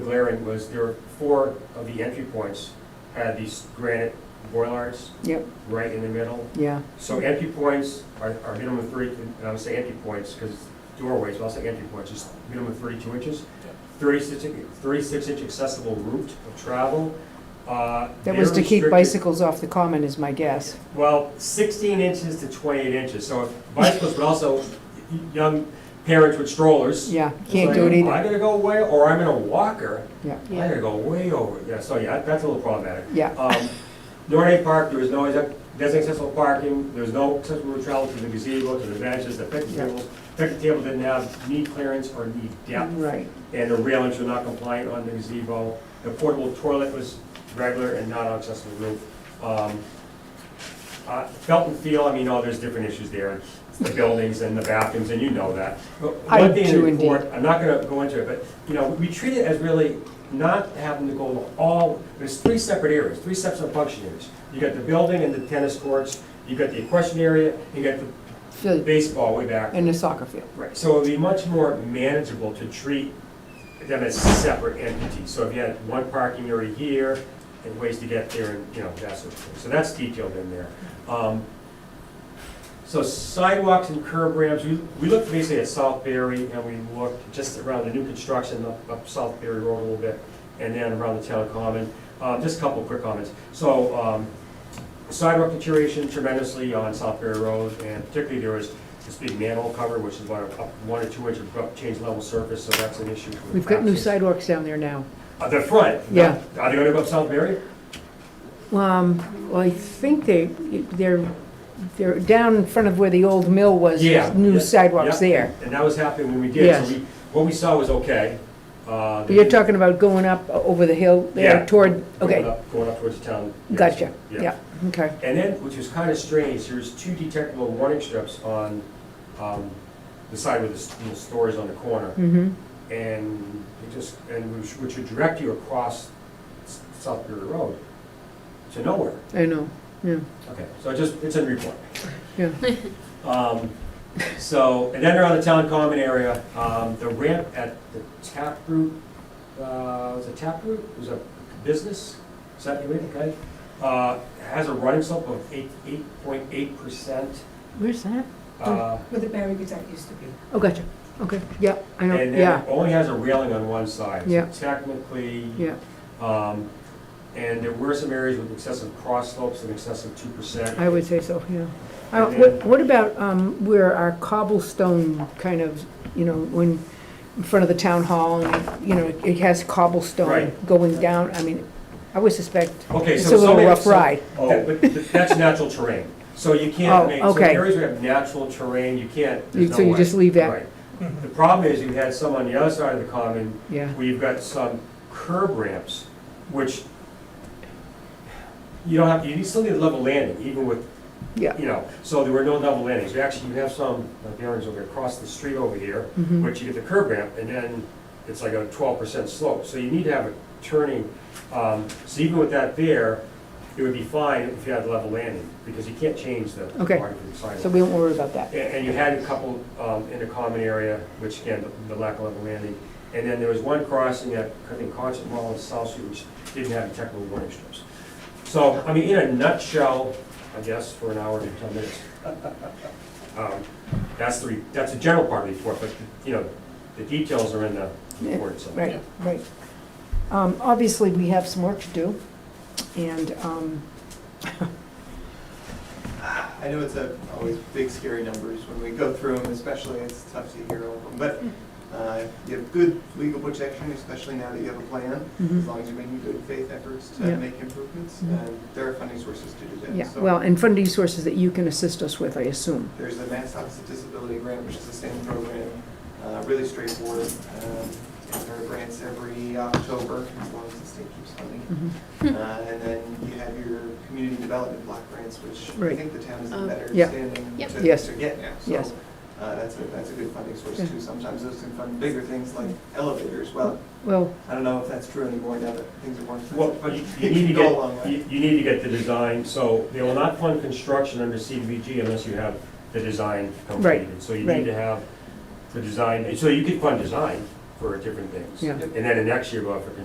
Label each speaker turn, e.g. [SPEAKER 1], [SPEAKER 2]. [SPEAKER 1] glaring was there were four of the entry points had these granite boilards
[SPEAKER 2] Yep,
[SPEAKER 1] right in the middle.
[SPEAKER 2] yeah,
[SPEAKER 1] So entry points are, are minimum three, and I would say entry points, because doorways, but I'll say entry points, just minimum thirty-two inches. Thirty-six, in- thirty-six inch accessible route of travel. Uh,
[SPEAKER 2] that
[SPEAKER 1] they're
[SPEAKER 2] was to keep
[SPEAKER 1] restricted-
[SPEAKER 2] bicycles off the common is my guess.
[SPEAKER 1] Well, sixteen inches to twenty-eight inches, so if bicycles, but also y- young parents with strollers.
[SPEAKER 2] Yeah,
[SPEAKER 1] it's
[SPEAKER 2] can't
[SPEAKER 1] like,
[SPEAKER 2] do it
[SPEAKER 1] "Oh, I
[SPEAKER 2] either,
[SPEAKER 1] gotta go away, or I'm in a walker,
[SPEAKER 2] yeah,
[SPEAKER 1] I gotta go way over, yeah, so yeah, that's a little problematic.
[SPEAKER 2] yeah,
[SPEAKER 1] Um, Norte Park, there was no exact- designated accessible parking, there was no accessible route travel to the gazebo, to the benches, the picnic
[SPEAKER 2] Yeah.
[SPEAKER 1] table. Picnic table didn't have knee clearance or knee depth,
[SPEAKER 2] right,
[SPEAKER 1] and the railings were not compliant on the gazebo. The portable toilet was regular and not on accessible roof. Um, uh, Felt and feel, I mean, oh, there's different issues there, the buildings and the bathrooms, and you know that. But
[SPEAKER 2] I
[SPEAKER 1] one thing in the
[SPEAKER 2] do indeed.
[SPEAKER 1] report, I'm not gonna go into it, but, you know, we treat it as really not having to go all, there's three separate areas, three separate function areas. You got the building and the tennis courts, you got the equestrian area, you got the
[SPEAKER 2] Phil-
[SPEAKER 1] baseball way back.
[SPEAKER 2] and the soccer field,
[SPEAKER 1] Right, so it'd be much more manageable to treat them as separate entities. So if you had one parking area here and ways to get there and, you know, that sort of thing. So that's detailed in there. Um, So sidewalks and curb ramps, we, we looked basically at South Berry and we looked just around the new construction up, up South Berry Road a little bit and then around the town common. Uh, just a couple of quick comments. So, um, sidewalk deterioration tremendously on South Berry Road, and particularly there was this big manhole cover, which is about a- one or two inch abrupt change level surface, so that's an issue. for the
[SPEAKER 2] we've got new
[SPEAKER 1] access.
[SPEAKER 2] sidewalks down there now.
[SPEAKER 1] Uh, The front?
[SPEAKER 2] Yeah.
[SPEAKER 1] Are they gonna go up South Berry?
[SPEAKER 2] Um, well, I think they, they're, they're down in front of where the old mill was,
[SPEAKER 1] Yeah,
[SPEAKER 2] there's new
[SPEAKER 1] yeah,
[SPEAKER 2] sidewalks there.
[SPEAKER 1] And that was happening when we did,
[SPEAKER 2] Yes.
[SPEAKER 1] so we, what we saw was okay. Uh,
[SPEAKER 2] But You're
[SPEAKER 1] the-
[SPEAKER 2] talking about going up o- over the hill
[SPEAKER 1] Yeah.
[SPEAKER 2] there toward,
[SPEAKER 1] going
[SPEAKER 2] okay,
[SPEAKER 1] up- Going up towards the town. yeah,
[SPEAKER 2] gotcha, yeah, okay,
[SPEAKER 1] And then, which was kind of strange, there's two detectable warning strips on, um, the side where the s- little store is on the corner.
[SPEAKER 2] mm-hmm,
[SPEAKER 1] and you just, and which which would direct you across S- South Bury Road to nowhere.
[SPEAKER 2] I know, yeah,
[SPEAKER 1] Okay, so it just, it's in report.
[SPEAKER 2] yeah,
[SPEAKER 1] Um, So, and then around the town common area, um, the ramp at the taproot, uh, was it taproot? It was a business, is that you, okay? Uh, Has a running slope of eight, eight point eight percent.
[SPEAKER 2] where's that?
[SPEAKER 1] Uh,
[SPEAKER 3] Where the Barry Gazette used to be.
[SPEAKER 2] Oh, gotcha, okay, yeah, Mm, I know,
[SPEAKER 1] And then
[SPEAKER 2] yeah,
[SPEAKER 1] it only has a railing on one side. So
[SPEAKER 2] Yeah.
[SPEAKER 1] Technically,
[SPEAKER 2] yeah,
[SPEAKER 1] Um, And there were some areas with excessive cross slopes and excessive two percent.
[SPEAKER 2] I would say so, yeah. Uh, What what about um, where our cobblestone kind of, you know, when, in front of the town hall, and, you know, it has cobblestone
[SPEAKER 1] Right.
[SPEAKER 2] going down, I mean, I would suspect
[SPEAKER 1] Okay,
[SPEAKER 2] it's
[SPEAKER 1] so.
[SPEAKER 2] a little
[SPEAKER 1] some-
[SPEAKER 2] rough
[SPEAKER 1] so-
[SPEAKER 2] ride.
[SPEAKER 1] that- But th- that's natural terrain. So you can't
[SPEAKER 2] Oh,
[SPEAKER 1] make, so
[SPEAKER 2] okay.
[SPEAKER 1] areas where you have natural terrain, you can't,
[SPEAKER 2] You-
[SPEAKER 1] there's no
[SPEAKER 2] So you
[SPEAKER 1] way.
[SPEAKER 2] just leave that,
[SPEAKER 1] Right. The problem is you had some on the other side of the common
[SPEAKER 2] yeah,
[SPEAKER 1] where you've got some curb ramps, which you don't have, you still need a level landing, even with
[SPEAKER 2] yeah,
[SPEAKER 1] you know, so there were no double landings. You Actually, you have some, like the orange over across the street over here,
[SPEAKER 2] Mhm.
[SPEAKER 1] which you get the curb ramp, and then it's like a twelve percent slope. So you need to have a turning, um, so even with that there, it would be fine if you had level landing, because you can't change the
[SPEAKER 2] Okay.
[SPEAKER 1] marking of the
[SPEAKER 2] so
[SPEAKER 1] sidewalk.
[SPEAKER 2] we won't worry about that.
[SPEAKER 1] And, and you had a couple, um, in the common area, which again, the- the lack of level landing. And then there was one crossing at, I think, Concert Mall and South Street, which didn't have technical warning strips. So, I mean, in a nutshell, I guess, for an hour and ten minutes, um, That's the, re- that's the general part of the report, but, you know, the details are in the report, so.
[SPEAKER 2] Right, right. Um, Obviously, we have some work to do, and, um,
[SPEAKER 4] I know it's a, always big scary numbers when we go through them, especially it's tough to hear all of them, but uh, you have good legal protection, especially now that you have a plan, as
[SPEAKER 2] mhm.
[SPEAKER 1] Mm-hmm.
[SPEAKER 4] long as you're making good faith efforts
[SPEAKER 2] Yeah.
[SPEAKER 4] to make improvements,
[SPEAKER 2] Mhm.
[SPEAKER 4] and there are funding sources to do that.
[SPEAKER 2] yeah,
[SPEAKER 4] So
[SPEAKER 2] well, and funding sources that you can assist us with, I assume.
[SPEAKER 4] There's the Mass Office of Disability Grant, which is the same program, uh, really straightforward. um, and There are grants every October, as long as the state keeps funding.
[SPEAKER 2] Mhm.
[SPEAKER 4] Uh, And then you have your community development block grants, which I
[SPEAKER 2] Right.
[SPEAKER 4] think the town is in
[SPEAKER 5] Um,
[SPEAKER 4] better
[SPEAKER 2] Yeah.
[SPEAKER 4] standing
[SPEAKER 5] Yep.
[SPEAKER 4] to
[SPEAKER 2] Yes.
[SPEAKER 4] to get now. So,
[SPEAKER 2] Yes.
[SPEAKER 4] uh, That's a, that's a good funding source
[SPEAKER 2] Yeah.
[SPEAKER 4] too. Sometimes those can fund bigger things like elevators. Well,
[SPEAKER 2] Well,
[SPEAKER 4] I don't know if that's true anymore now that things are more
[SPEAKER 1] Well, but
[SPEAKER 4] expensive, but
[SPEAKER 1] you
[SPEAKER 4] it
[SPEAKER 1] you need to
[SPEAKER 4] can go a long
[SPEAKER 1] get,
[SPEAKER 4] way.
[SPEAKER 1] you, you need to get the design, so they will not fund construction under CDBG unless you have the design completed. So you
[SPEAKER 2] right.
[SPEAKER 1] need to have the design, so you could fund design for different things.
[SPEAKER 2] Yeah.
[SPEAKER 1] And then the next year, go out for